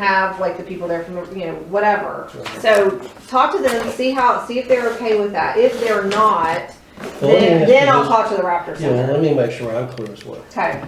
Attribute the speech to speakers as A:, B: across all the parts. A: have like the people there from, you know, whatever.
B: Right.
A: So talk to them, see how, see if they're okay with that. If they're not,
B: Well, let me
A: then,
B: ask
A: then
B: you
A: I'll
B: this.
A: talk to the Raptor
B: Oh, Yeah, well,
A: Center.
B: let me make sure I'm clear as well.
A: Okay,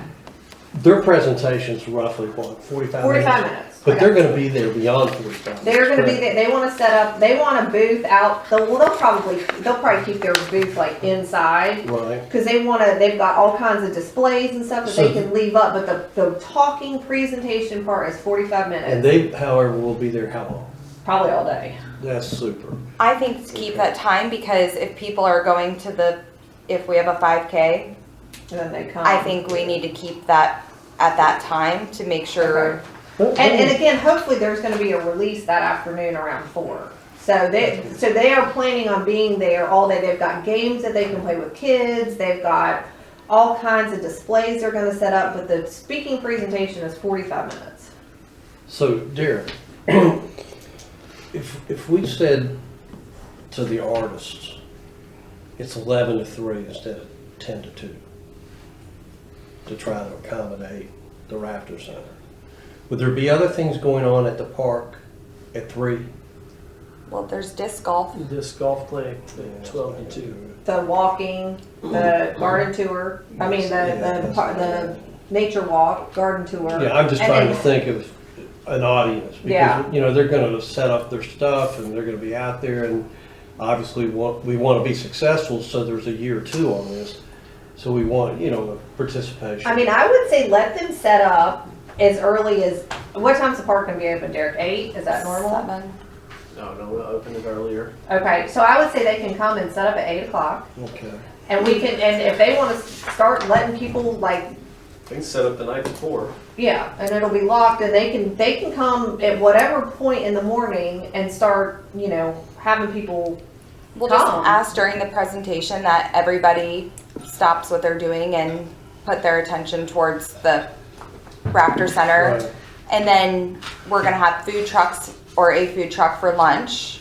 B: Their presentation's roughly what, forty-five minutes?
A: forty-five minutes.
B: But they're
A: Okay.
B: gonna be there beyond forty-five.
A: They're gonna be,
B: correct?
A: there. they wanna set up, they want a booth out, they'll, they'll probably, they'll probably keep their booth like inside.
B: Right,
A: Cause they wanna, they've got all kinds of displays and stuff that they can leave up, but the, the talking presentation part is forty-five minutes,
B: and they, however, will be there how long?
A: probably all day.
B: That's super.
C: I think to keep that time because if people are going to the, if we have a five K,
A: And then they come.
C: I think we need to keep that at that time to make sure.
A: And, and again, hopefully there's gonna be a release that afternoon around four. So they, so they are planning on being there all day. They've got games that they can play with kids. They've got all kinds of displays they're gonna set up, but the speaking presentation is forty-five minutes.
B: So Derek, if, if we said to the artists, it's eleven to three instead of ten to two, to try to accommodate the Raptor Center, would there be other things going on at the park at three?
C: Well, there's disc golf.
D: This golf clinic, the twelve to two.
A: The walking, the garden tour, I mean, the, the, par- the nature walk, garden tour.
B: Yeah, I'm just
A: And
B: trying to
A: then-
B: think of an audience,
A: Yeah.
B: because, you know, they're gonna set up their stuff, and they're gonna be out there, and obviously, wa- we wanna be successful, so there's a year or two on this, so we want, you know, participation.
A: I mean, I would say let them set up as early as, what time's the park gonna be open, Derek? Eight? Is that normal?
C: Seven.
D: No, Oh, no, we opened it earlier.
A: Okay, so I would say they can come and set up at eight o'clock,
B: Okay,
A: and we can, and if they want to start letting people like,
D: They can set up the night before.
A: yeah, and it'll be locked, and they can, they can come at whatever point in the morning and start, you know, having people,
C: We'll just
A: Tom.
C: ask during the presentation that everybody stops what they're doing and put their attention towards the Raptor Center.
B: Right.
C: And then we're gonna have food trucks or a food truck for lunch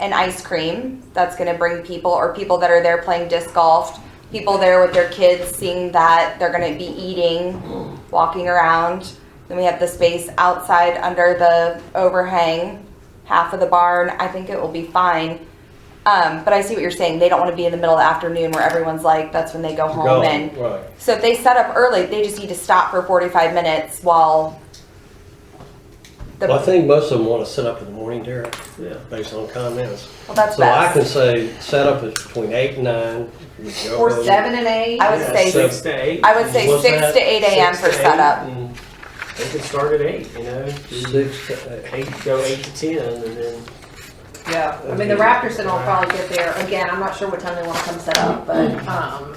C: and ice cream. That's gonna bring people or people that are there playing disc golf, people there with their kids seeing that they're gonna be eating, walking around. Then we have the space outside under the overhang, half of the barn. I think it will be fine. Um, but I see what you're saying. They don't want to be in the middle of the afternoon where everyone's like, that's when they go
B: You're
C: home
B: gone,
C: and
B: right.
C: so if they set up early, they just need to stop for 45 minutes while the,
B: Well, I
C: well,
B: think most of them wanna set up in the morning, Derek,
D: Yeah.
B: based on comments.
C: that's
B: So I
C: best.
B: can say, set up is between eight and nine. we go
A: or
B: home.
A: seven and eight.
C: I would say-
D: Six to eight.
C: I would say
B: What's
C: 6
B: that?
C: to 8 a.m. for
D: Six to eight,
C: setup.
D: and Mm. They can start at eight, you know, do
B: Six to eight.
D: eight, go eight to ten and then.
A: Yeah, I mean, the Raptor Center will probably get there, again, I'm not sure what time they want to come set up, but, um,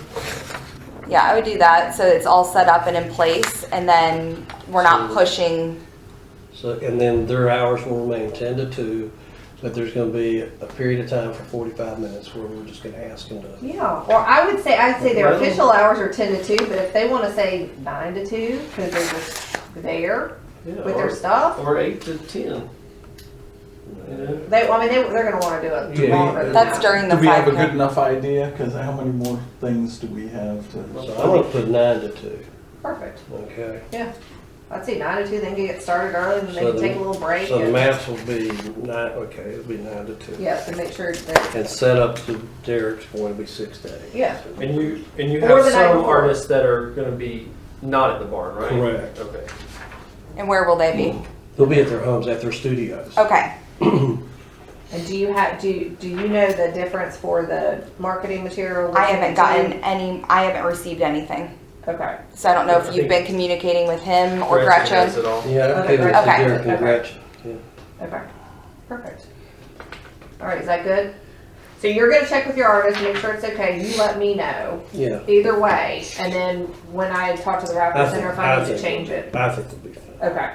C: Yeah, I would do that. So it's all set up and in place, and then we're not
B: So-
C: pushing.
B: So, and then their hours will remain ten to two, but there's gonna be a period of time for forty-five minutes where we're just gonna ask them to.
A: yeah, or I would say, I'd say their
D: Well-
A: official hours are ten to two, but if they want to say nine to two, because they're just there
D: yeah,
A: with their
D: or-
A: stuff,
D: Or eight to ten, you know.
A: they, I mean, they, they're gonna want to do it
E: Yeah.
A: longer than
C: That's
A: that.
C: during the
E: Do we have a
C: 5
E: good
C: minutes.
E: enough idea? Because how many more things do we have to?
B: So I'm gonna put nine to two,
A: Perfect.
B: okay?
A: I'd say nine to two, then get started early, and then they
B: So
A: can
B: the-
A: take a little break.
B: So the
A: and-
B: maps will be nine, okay, it'll be nine to two.
A: Yeah, so make sure that,
B: And set up to Derek's point, it'll be six to eight.
A: Yeah.
D: And you, and you
A: Or
D: have
A: the night
D: some
A: before.
D: artists that are gonna be not at the barn, right?
B: Correct.
D: Okay.
C: And where will they be?
B: They'll be at their homes, at their studios.
C: Okay.
A: and do you have, do, you- do you know the difference for the marketing material?
C: I haven't gotten any, I haven't received anything.
A: Okay,
C: So I don't know if
D: I
C: you've been
D: think-
C: communicating with him or
D: has
C: Gretchen.
D: it all.
B: Yeah, okay,
A: Okay,
B: with
C: okay,
B: Derek and
A: okay.
B: Gretchen.
A: okay, perfect. All right, is that good? So you're gonna check with your artist, make sure it's okay, you let me know,
B: Yeah.
A: either way, and then when I talk to the
B: I
A: Raptor
B: think-
A: Center, if I need
B: think-
A: to change it,
B: I think it'll be fine.
A: okay.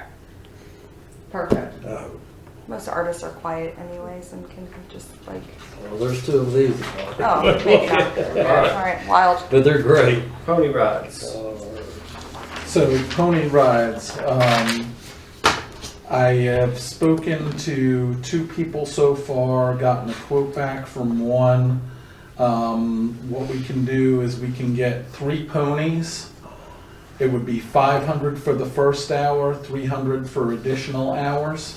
A: Perfect,
B: I hope.
C: Most artists are quiet anyways and can just like,
B: Well, there's two of these.
C: oh, maybe not. All right, wild.
B: But they're great.
D: Pony rides.
B: Uh,
E: So pony rides, um, I have spoken to two people so far, gotten a quote back from one. Um, what we can do is we can get three ponies. It would be five hundred for the first hour, three hundred for additional hours.